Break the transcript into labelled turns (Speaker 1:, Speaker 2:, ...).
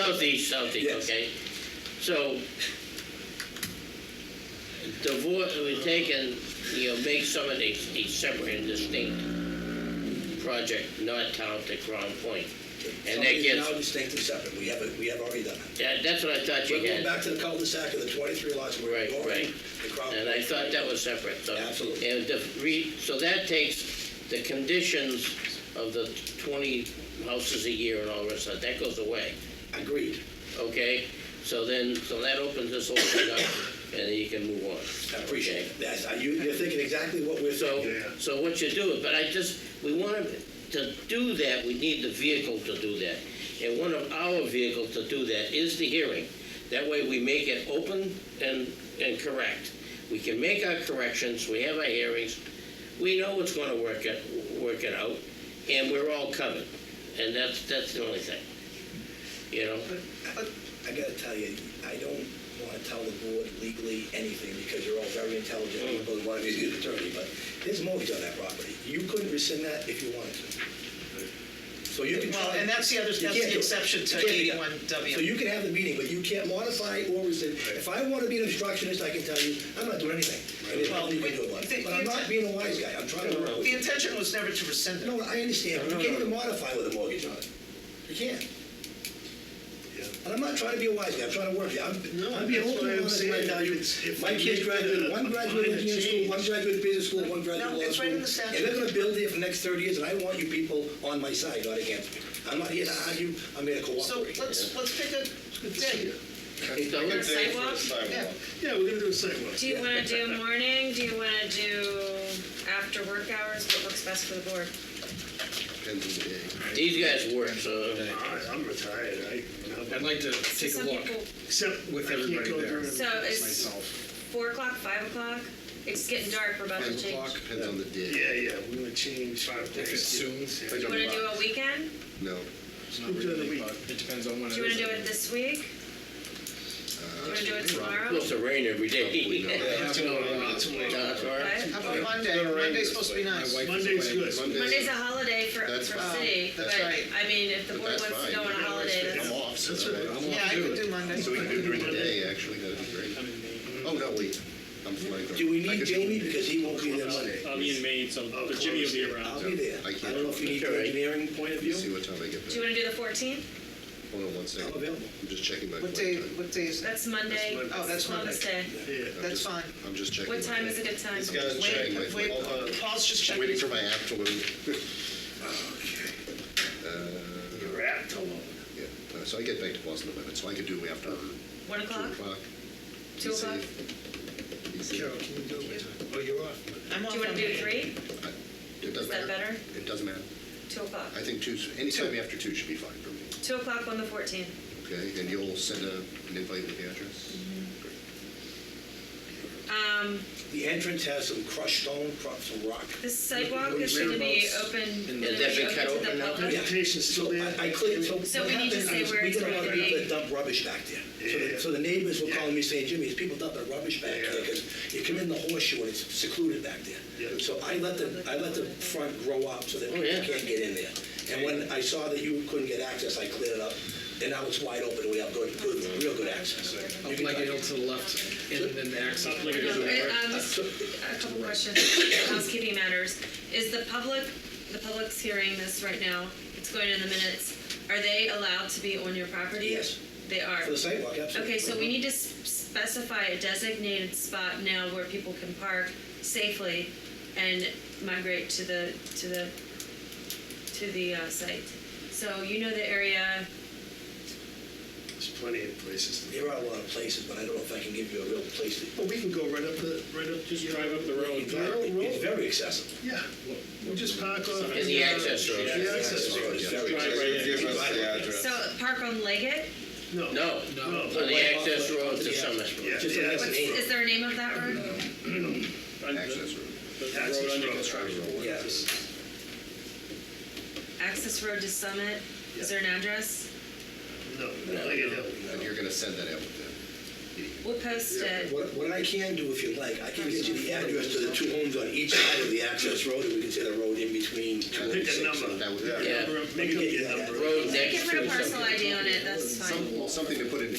Speaker 1: southeast, southeast,
Speaker 2: Yes.
Speaker 1: okay? So, divorce, we're taking, you know, make some of these, these separate and distinct project, not town to Crown Point. And that
Speaker 2: Now
Speaker 1: gets,
Speaker 2: distinct and separate, we haven't, we have already done it.
Speaker 1: that, that's what I thought
Speaker 2: We're
Speaker 1: you
Speaker 2: going
Speaker 1: had.
Speaker 2: back to the cul-de-sac of the 23 lots where
Speaker 1: Right,
Speaker 2: we're going.
Speaker 1: right.
Speaker 2: The Crown
Speaker 1: And I thought that was separate, so.
Speaker 2: Absolutely.
Speaker 1: And the re, so that takes the conditions of the twenty houses a year and all the rest of that, that goes away.
Speaker 2: Agreed,
Speaker 1: Okay, so then, so that opens this whole thing up, and then you can move on.
Speaker 2: I appreciate it. That's, are you, you're thinking exactly what we're
Speaker 1: So,
Speaker 2: thinking.
Speaker 1: so what you do, but I just, we want to, to do that, we need the vehicle to do that. And one of our vehicles to do that is the hearing. That way we make it open and, and correct. We can make our corrections, we have our hearings, we know what's gonna work it, work it out, and we're all covered. And that's, that's the only thing, you know?
Speaker 2: But I gotta tell you, I don't wanna tell the board legally anything because you're all very intelligent
Speaker 3: Mm.
Speaker 2: people and wanna be the attorney, but there's mortgage on that property. You couldn't rescind that if you wanted to. So you can.
Speaker 3: Well,
Speaker 2: try-
Speaker 3: and that's the other-
Speaker 2: you
Speaker 3: that's the
Speaker 2: can't do it.
Speaker 3: exception to
Speaker 2: You can't do that.
Speaker 3: 81W.
Speaker 2: So you can have the meeting, but you can't modify or rescind. If I wanna be an obstructionist, I can tell you, I'm not doing anything. And there's
Speaker 3: Well,
Speaker 2: nothing you can do about
Speaker 3: the-
Speaker 2: it. But I'm not being a wise guy, I'm trying to work with
Speaker 3: The
Speaker 2: you.
Speaker 3: intention was never to rescind it.
Speaker 2: No, I understand, but you can't even modify with a mortgage on it. You can't. And I'm not trying to be a wise guy, I'm trying to work here. I'm,
Speaker 4: No,
Speaker 2: I'm being
Speaker 4: that's
Speaker 2: open
Speaker 4: what
Speaker 2: and
Speaker 4: I'm
Speaker 2: honest right
Speaker 4: saying.
Speaker 2: now. You,
Speaker 4: It's- if
Speaker 2: my
Speaker 4: you
Speaker 2: kids
Speaker 4: make
Speaker 2: graduated,
Speaker 4: a-
Speaker 2: one
Speaker 4: a
Speaker 2: graduated
Speaker 4: minor
Speaker 2: engineering school,
Speaker 4: change.
Speaker 2: one graduated business school, one graduated
Speaker 3: No,
Speaker 2: law
Speaker 3: it's
Speaker 2: school.
Speaker 3: right in the statute.
Speaker 2: And they're gonna build here for the next thirty years, and I want you people on my side, not against me. I'm not here to argue, I'm here to
Speaker 3: So
Speaker 2: cooperate.
Speaker 3: let's, let's pick a day.
Speaker 1: So
Speaker 5: Or
Speaker 1: let's-
Speaker 5: sidewalk?
Speaker 3: Yeah.
Speaker 4: Yeah, we're gonna do a sidewalk.
Speaker 5: Do you wanna do morning, do you wanna do after work hours, what works best for the board?
Speaker 1: These guys work, so.
Speaker 4: I- I'm retired, I,
Speaker 6: I'd like to take a
Speaker 5: Some
Speaker 6: look
Speaker 5: people,
Speaker 4: except
Speaker 6: with
Speaker 4: I can't
Speaker 6: everybody
Speaker 4: go
Speaker 6: there.
Speaker 4: during-
Speaker 5: So it's
Speaker 6: myself.
Speaker 5: four o'clock, five o'clock, it's getting dark, we're about to
Speaker 7: Five o'clock,
Speaker 5: change.
Speaker 7: depends on the day.
Speaker 4: Yeah, yeah, we're gonna change.
Speaker 6: If it's soon.
Speaker 7: Depends on
Speaker 5: Wanna
Speaker 7: the
Speaker 5: do a
Speaker 7: box.
Speaker 5: weekend,
Speaker 7: No.
Speaker 6: It's not
Speaker 4: During the
Speaker 6: really,
Speaker 4: week.
Speaker 6: but it depends on when
Speaker 5: do
Speaker 6: it
Speaker 5: you wanna do
Speaker 6: is.
Speaker 5: it this week? Do
Speaker 7: Uh,
Speaker 5: you wanna do it tomorrow?
Speaker 1: Supposed to rain every day.
Speaker 7: Probably not.
Speaker 6: It's too early, it's too early.
Speaker 1: That's all right.
Speaker 5: What?
Speaker 3: How about Monday? Monday's supposed to be
Speaker 6: My
Speaker 3: nice.
Speaker 6: wife is
Speaker 4: Monday's
Speaker 6: away.
Speaker 4: good.
Speaker 7: Monday-
Speaker 5: Monday's a holiday for,
Speaker 7: That's
Speaker 5: for
Speaker 7: fine.
Speaker 5: city, but,
Speaker 7: That's
Speaker 3: right.
Speaker 5: I mean, if the
Speaker 7: But
Speaker 5: board
Speaker 7: that's
Speaker 5: wants to
Speaker 7: fine.
Speaker 5: go on a holiday,
Speaker 7: I'm
Speaker 5: that's.
Speaker 7: off, so that- I'm
Speaker 3: Yeah,
Speaker 7: off
Speaker 3: I could
Speaker 7: too.
Speaker 3: do Monday.
Speaker 7: So we can do it during the day, actually, that'd be great. Oh, no, wait, I'm flying.
Speaker 2: Do we
Speaker 7: I
Speaker 2: need
Speaker 7: could-
Speaker 2: Jamie, because he won't be there Monday?
Speaker 8: I'll be in Maine, so
Speaker 4: Oh,
Speaker 8: but Jimmy will be
Speaker 2: I'll
Speaker 8: around.
Speaker 2: be there.
Speaker 7: I
Speaker 2: I
Speaker 7: can't.
Speaker 2: don't know if you need the engineering point of
Speaker 7: See
Speaker 2: view.
Speaker 7: what time I get
Speaker 5: Do you
Speaker 7: back.
Speaker 5: wanna do the fourteenth?
Speaker 7: Hold on one
Speaker 2: I'm
Speaker 7: second.
Speaker 2: available.
Speaker 7: I'm just checking my
Speaker 3: What
Speaker 7: flight
Speaker 3: day,
Speaker 7: time.
Speaker 3: what day is that?
Speaker 5: That's Monday,
Speaker 4: Monday.
Speaker 3: Oh, that's Monday.
Speaker 5: Columbus Day.
Speaker 4: Yeah.
Speaker 7: I'm
Speaker 3: That's
Speaker 7: just-
Speaker 3: fine.
Speaker 7: I'm just checking.
Speaker 5: What
Speaker 7: my
Speaker 5: time
Speaker 7: flight.
Speaker 5: is a good time?
Speaker 7: Checking my
Speaker 3: Wait, wait,
Speaker 7: flight.
Speaker 4: uh,
Speaker 3: Paul's just checking.
Speaker 7: Waiting for my app to load. Uh,
Speaker 4: You're apt alone.
Speaker 7: yeah. Uh, So I get back to Boston eleven, so I could do after two
Speaker 5: One Uh-huh. o'clock,
Speaker 7: o'clock.
Speaker 5: two o'clock?
Speaker 7: Easy.
Speaker 4: Carol, can you do it? Oh, you're off.
Speaker 3: I'm off
Speaker 5: Do you wanna
Speaker 3: on
Speaker 5: do
Speaker 3: Monday.
Speaker 5: three,
Speaker 7: It doesn't
Speaker 5: Is that
Speaker 7: matter.
Speaker 5: better?
Speaker 7: It doesn't matter.
Speaker 5: two o'clock?
Speaker 7: I think two, anytime after two should be fine for me,
Speaker 5: Two o'clock on the fourteenth.
Speaker 7: okay? And you'll send a, an invite with the address? Great.
Speaker 5: Um,
Speaker 2: The entrance has some crushed stone, crushed some rock.
Speaker 5: the sidewalk
Speaker 4: Where-
Speaker 5: is gonna be
Speaker 4: whereabouts?
Speaker 5: open,
Speaker 1: And
Speaker 5: gonna
Speaker 1: that
Speaker 5: be
Speaker 1: been cut
Speaker 5: open to
Speaker 1: open
Speaker 5: the
Speaker 1: now?
Speaker 5: public.
Speaker 4: Vacation's still there.
Speaker 2: I I cleared, so.
Speaker 5: So
Speaker 2: what
Speaker 5: we need to
Speaker 2: happened
Speaker 5: say
Speaker 2: is
Speaker 5: where
Speaker 2: we
Speaker 5: it's
Speaker 2: got a lot
Speaker 5: going
Speaker 2: of
Speaker 5: to
Speaker 2: people
Speaker 5: be.
Speaker 2: that dump rubbish back there. So
Speaker 4: Yeah.
Speaker 2: the- So the neighbors were
Speaker 4: Yeah.
Speaker 2: calling me saying, Jimmy, these people dump their rubbish back there
Speaker 4: Yeah.
Speaker 2: because you come in the horseshoe and it's secluded back
Speaker 4: Yeah.
Speaker 2: there. So I let the, I let the front grow up so that
Speaker 1: Oh, yeah.
Speaker 2: people can't get in there. And when I saw that you couldn't get access, I cleared it up and now it's wide open. We have good, good, real good access.
Speaker 6: I'll
Speaker 2: You can
Speaker 6: flag it
Speaker 2: drive.
Speaker 6: out to the left and then the access.
Speaker 8: Up like it is.
Speaker 5: No, it, um,
Speaker 2: So-
Speaker 5: a couple questions, housekeeping matters. Is the public, the public's hearing this right now, it's going in the minutes. Are they allowed to be on your property?
Speaker 2: Yes.
Speaker 5: They are?
Speaker 2: For the sidewalk, absolutely.
Speaker 5: Okay, so we need to s- specify a designated spot now where people can park safely and migrate to the, to the, to the uh, site. So you know the area,
Speaker 4: There's plenty of places.
Speaker 2: There are a lot of places, but I don't know if I can give you a real place. to-
Speaker 4: Well, we can go right up the, right up.
Speaker 8: Just
Speaker 4: you know,
Speaker 8: drive up the road.
Speaker 4: The road.
Speaker 2: It's very accessible.
Speaker 4: Yeah, we'll- we'll just park off.
Speaker 8: In
Speaker 1: the access road.
Speaker 4: The access
Speaker 2: So
Speaker 4: road.
Speaker 2: it's very
Speaker 8: Drive
Speaker 2: accessible.
Speaker 8: right in.
Speaker 2: You can drive right in.
Speaker 5: so park on Leggett?
Speaker 4: No.
Speaker 1: No,
Speaker 4: No.
Speaker 1: on the access road to Summit.
Speaker 4: Yeah,
Speaker 2: Just
Speaker 4: yeah.
Speaker 2: an
Speaker 5: What's,
Speaker 2: exit.
Speaker 5: is there a name of that road?
Speaker 8: Under-
Speaker 7: Access road.
Speaker 8: The
Speaker 4: Access
Speaker 8: road under
Speaker 4: road.
Speaker 8: construction.
Speaker 2: Yes.
Speaker 5: Access Road to Summit, is there an address?
Speaker 4: No, no, I don't know.
Speaker 7: And you're gonna send that out with them?
Speaker 5: We'll post it.
Speaker 2: What, what I can do, if you like, I can get you the address to the two homes on each side of the access road, and we can say the road in between. two
Speaker 8: Pick a
Speaker 2: and six.
Speaker 8: number.
Speaker 7: That would,
Speaker 1: Yeah.
Speaker 8: Make up your number.
Speaker 1: Road
Speaker 5: They
Speaker 1: next
Speaker 5: can
Speaker 1: to
Speaker 5: put a
Speaker 1: something.
Speaker 5: parcel ID on it, that's fine.
Speaker 7: some, something to put in